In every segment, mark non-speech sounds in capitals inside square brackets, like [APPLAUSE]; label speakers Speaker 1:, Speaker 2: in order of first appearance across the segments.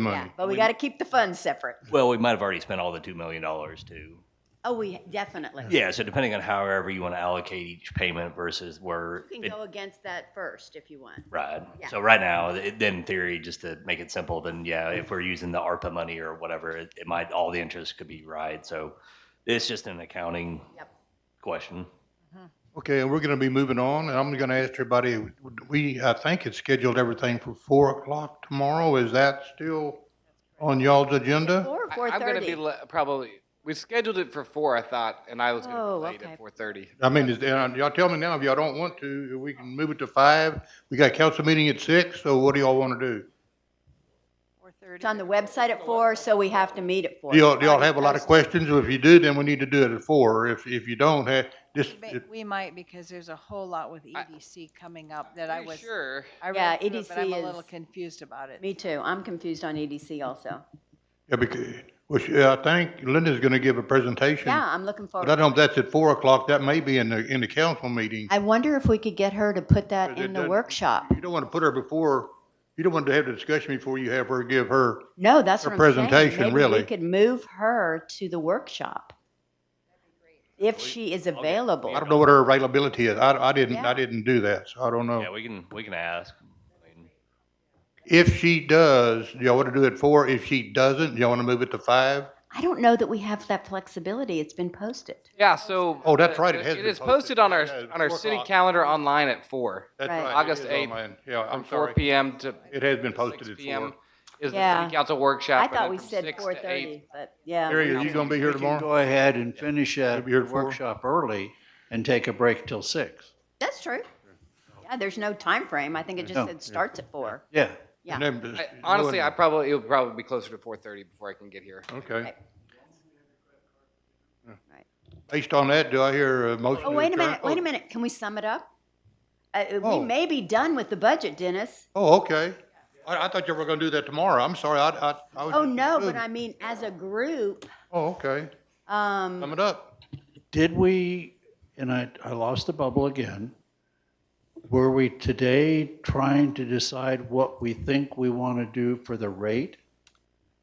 Speaker 1: money.
Speaker 2: But we got to keep the funds separate.
Speaker 3: Well, we might have already spent all the $2 million too.
Speaker 2: Oh, we definitely.
Speaker 3: Yeah, so depending on however you want to allocate each payment versus where.
Speaker 2: You
Speaker 3: it-
Speaker 2: can go against that first if you want.
Speaker 3: Right.
Speaker 2: Yeah.
Speaker 3: So right now, th- then in theory, just to make it simple, then yeah, if we're using the ARPA money or whatever, it, it might, all the interest could be right. So it's just an accounting
Speaker 2: Yep.
Speaker 3: question.
Speaker 1: Okay, and we're going to be moving on, and I'm going to ask everybody, we, I think it's scheduled everything for four o'clock tomorrow. Is that still on y'all's agenda?
Speaker 2: Four,
Speaker 4: I-
Speaker 2: four
Speaker 4: I'm gonna be
Speaker 2: thirty.
Speaker 4: le- probably. We scheduled it for four, I thought, and I was gonna
Speaker 2: Oh,
Speaker 4: be late
Speaker 2: okay.
Speaker 4: at four thirty.
Speaker 1: I mean, is, and y'all tell me now if y'all don't want to, we can move it to five. We got a council meeting at six, so what do y'all want to do?
Speaker 2: It's on the website at four, so we have to meet at four.
Speaker 1: Do y'all, do y'all have a lot of questions? If you do, then we need to do it at four. If, if you don't, eh, just,
Speaker 5: But We might, because there's a whole lot with
Speaker 4: I-
Speaker 5: EDC coming up that I was,
Speaker 4: sure.
Speaker 5: I
Speaker 2: Yeah,
Speaker 5: read through it, but I'm
Speaker 2: EDC
Speaker 5: a
Speaker 2: is-
Speaker 5: little confused about it.
Speaker 2: Me too. I'm confused on EDC also.
Speaker 1: yeah, because, well, she- I think Linda's going to give a presentation.
Speaker 2: Yeah, I'm looking
Speaker 1: But I
Speaker 2: forward.
Speaker 1: don't know if that's at four o'clock. That may be in the, in the council meeting.
Speaker 2: I wonder if we could get her to put that
Speaker 1: But it
Speaker 2: in the
Speaker 1: doesn't-
Speaker 2: workshop.
Speaker 1: You don't want to put her before, you don't want to have the discussion before you have her give her.
Speaker 2: No, that's
Speaker 1: Her
Speaker 2: what I'm saying.
Speaker 1: presentation,
Speaker 2: Maybe
Speaker 1: really.
Speaker 2: we could move her to the workshop if she is available.
Speaker 1: I don't know what her availability is. I, I didn't,
Speaker 2: Yeah.
Speaker 1: I didn't do that, so I don't
Speaker 3: Yeah,
Speaker 1: know.
Speaker 3: we can, we can ask. I mean,
Speaker 1: If she does, do y'all want to do it four? If she doesn't, do y'all want to move it to five?
Speaker 2: I don't know that we have that flexibility. It's been posted.
Speaker 4: Yeah. So.
Speaker 1: Oh, that's right, it
Speaker 4: uh,
Speaker 1: has
Speaker 4: It
Speaker 1: been
Speaker 4: is
Speaker 1: posted.
Speaker 4: posted on our
Speaker 1: Yeah, it's
Speaker 4: on our
Speaker 1: four
Speaker 4: city
Speaker 1: o'clock.
Speaker 4: calendar online at four,
Speaker 1: That's
Speaker 2: Right.
Speaker 1: right. it
Speaker 4: August
Speaker 1: is
Speaker 4: 8th,
Speaker 1: online. Yeah,
Speaker 4: from
Speaker 1: I'm
Speaker 4: four
Speaker 1: sorry.
Speaker 4: p.m. to
Speaker 1: It has been posted
Speaker 4: six
Speaker 1: at
Speaker 4: p.m.
Speaker 1: four.
Speaker 4: is the
Speaker 2: Yeah.
Speaker 4: city council workshop.
Speaker 2: I
Speaker 4: and
Speaker 2: thought
Speaker 4: then
Speaker 2: we
Speaker 4: from
Speaker 2: said
Speaker 4: 6 to
Speaker 2: four
Speaker 4: 8.
Speaker 2: thirty, but yeah.
Speaker 1: Harry, are you going to be here
Speaker 6: We can
Speaker 1: tomorrow?
Speaker 6: Go ahead and finish that
Speaker 1: Maybe here at four.
Speaker 6: workshop early and take a break till six.
Speaker 2: That's true. Yeah, there's no time frame. I think it just
Speaker 6: No.
Speaker 2: said starts at four.
Speaker 6: Yeah.
Speaker 2: Yeah.
Speaker 1: And then just
Speaker 4: I, honestly,
Speaker 1: go
Speaker 4: I
Speaker 1: in-
Speaker 4: probably it'll probably be closer to four thirty before I can get here.
Speaker 1: Okay.
Speaker 2: Right.
Speaker 1: Based on that, do I hear a motion?
Speaker 2: Oh,
Speaker 1: to
Speaker 2: wait a
Speaker 1: adjourn?
Speaker 2: minute, wait
Speaker 1: Oh,
Speaker 2: a minute. Can we sum it up? Uh, we
Speaker 1: Oh.
Speaker 2: may be done with the budget, Dennis.
Speaker 1: Oh, okay. I, I thought you were going to do that tomorrow. I'm sorry, I, I, I was.
Speaker 2: Oh, no, but
Speaker 1: I.
Speaker 2: I mean, as a group,
Speaker 1: Oh, okay.
Speaker 2: um,
Speaker 1: Sum it up.
Speaker 6: Did we, and I, I lost the bubble again, were we today trying to decide what we think we want to do for the rate?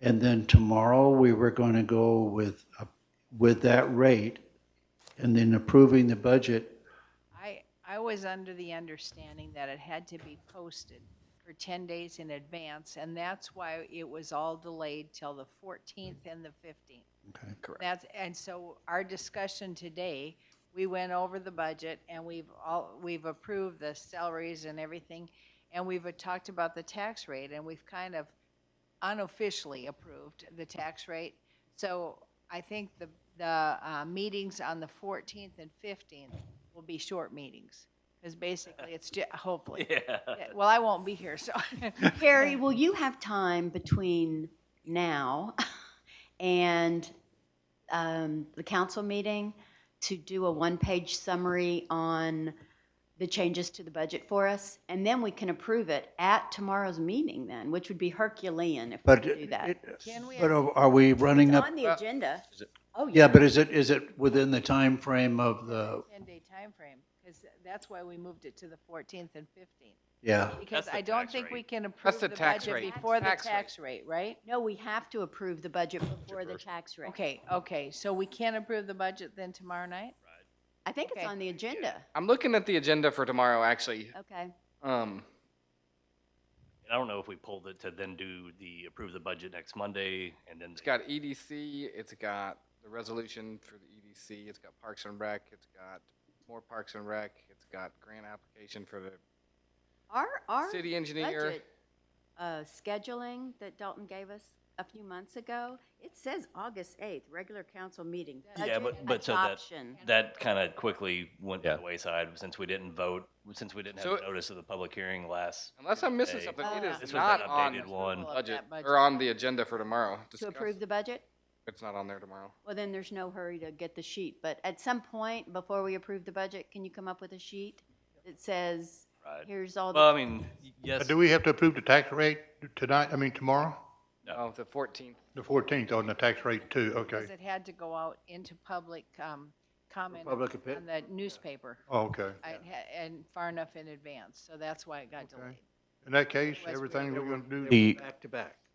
Speaker 6: And then tomorrow, we were going to go with, a- with that rate and then approving the budget
Speaker 5: I, I was under the understanding that it had to be posted for 10 days in advance, and that's why it was all delayed till the 14th and the 15th.
Speaker 6: Okay.
Speaker 5: Correct. That's, and so our discussion today, we went over the budget, and we've all, we've approved the salaries and everything, and we've talked about the tax rate, and we've kind of unofficially approved the tax rate. So I think the, the uh, meetings on the 14th and 15th will be short meetings, because basically it's, ju-
Speaker 3: [LAUGHS]
Speaker 5: hopefully.
Speaker 3: [LAUGHS] Yeah.
Speaker 5: Yeah, Well, I won't be here, so.
Speaker 2: Harry, will you have time between now [LAUGHS] and um, the council meeting to do a one-page summary on the changes to the budget for us? And then we can approve it at tomorrow's meeting then, which would be Herculean if we
Speaker 6: But
Speaker 2: could do that.
Speaker 6: it-
Speaker 5: Can we-
Speaker 6: But are are we running
Speaker 2: It's
Speaker 6: up?
Speaker 2: on the agenda. Oh,
Speaker 6: Yeah, but is it, is it within the time frame
Speaker 5: [LAUGHS]
Speaker 6: of the,
Speaker 5: 10-day timeframe, because that's why we moved it to the 14th and 15th.
Speaker 6: yeah,
Speaker 5: Because
Speaker 3: the
Speaker 5: I don't
Speaker 3: tax
Speaker 5: think
Speaker 3: rate.
Speaker 5: we can approve
Speaker 4: the
Speaker 5: the
Speaker 4: tax
Speaker 5: budget
Speaker 4: rate.
Speaker 5: before the
Speaker 4: Tax rate.
Speaker 5: tax rate, right?
Speaker 2: No, we have to approve the budget before the tax rate.
Speaker 5: Okay, okay, so we can't approve the budget then tomorrow night?
Speaker 2: I think it's
Speaker 5: Okay.
Speaker 2: on the agenda.
Speaker 4: I'm looking at the agenda for tomorrow, actually.
Speaker 2: Okay.
Speaker 4: Um,
Speaker 3: And I don't know if we pulled it to then do the, approve the budget next Monday and then.
Speaker 4: It's got EDC, it's got the resolution for the EDC, it's got Parks and Rec, it's got more Parks and Rec, it's got grant application for the
Speaker 2: Our, our.
Speaker 4: city engineer.
Speaker 2: budget, uh, scheduling that Dalton gave us a few months ago, it says August 8th, regular council meeting.
Speaker 3: Yeah,
Speaker 2: budget
Speaker 3: but- but so that-
Speaker 2: adoption.
Speaker 3: That kind of quickly went to the wayside since we didn't vote, since we didn't have
Speaker 4: So-
Speaker 3: notice of the public hearing last.
Speaker 4: Unless I'm missing
Speaker 3: Tuesday.
Speaker 4: something, it
Speaker 2: Oh.
Speaker 4: is
Speaker 3: This was
Speaker 4: not
Speaker 3: an
Speaker 4: on
Speaker 3: updated
Speaker 4: the
Speaker 3: one.
Speaker 5: Well,
Speaker 4: budget,
Speaker 5: that budget.
Speaker 4: or on the agenda for tomorrow.
Speaker 2: To
Speaker 4: Discuss.
Speaker 2: approve the budget?
Speaker 4: It's not on there tomorrow.
Speaker 2: Well, then there's no hurry to get the sheet, but at some point, before we approve the budget, can you come up with a sheet that says,
Speaker 3: Right.
Speaker 2: here's all
Speaker 3: Well, I
Speaker 2: the,
Speaker 3: mean, yes.
Speaker 1: Do we have to approve the tax rate tonight, I mean tomorrow?
Speaker 4: Oh, the fourteenth.
Speaker 1: The fourteenth on the tax rate too, okay.
Speaker 5: Because it had to go out into public um, comment
Speaker 6: Public opi-
Speaker 5: on the newspaper,
Speaker 1: Oh, okay.
Speaker 5: I had- and far enough in advance, so that's why it got delayed.
Speaker 1: In that case,
Speaker 5: Otherwise, we-
Speaker 1: everything we're gonna do,
Speaker 6: back to back?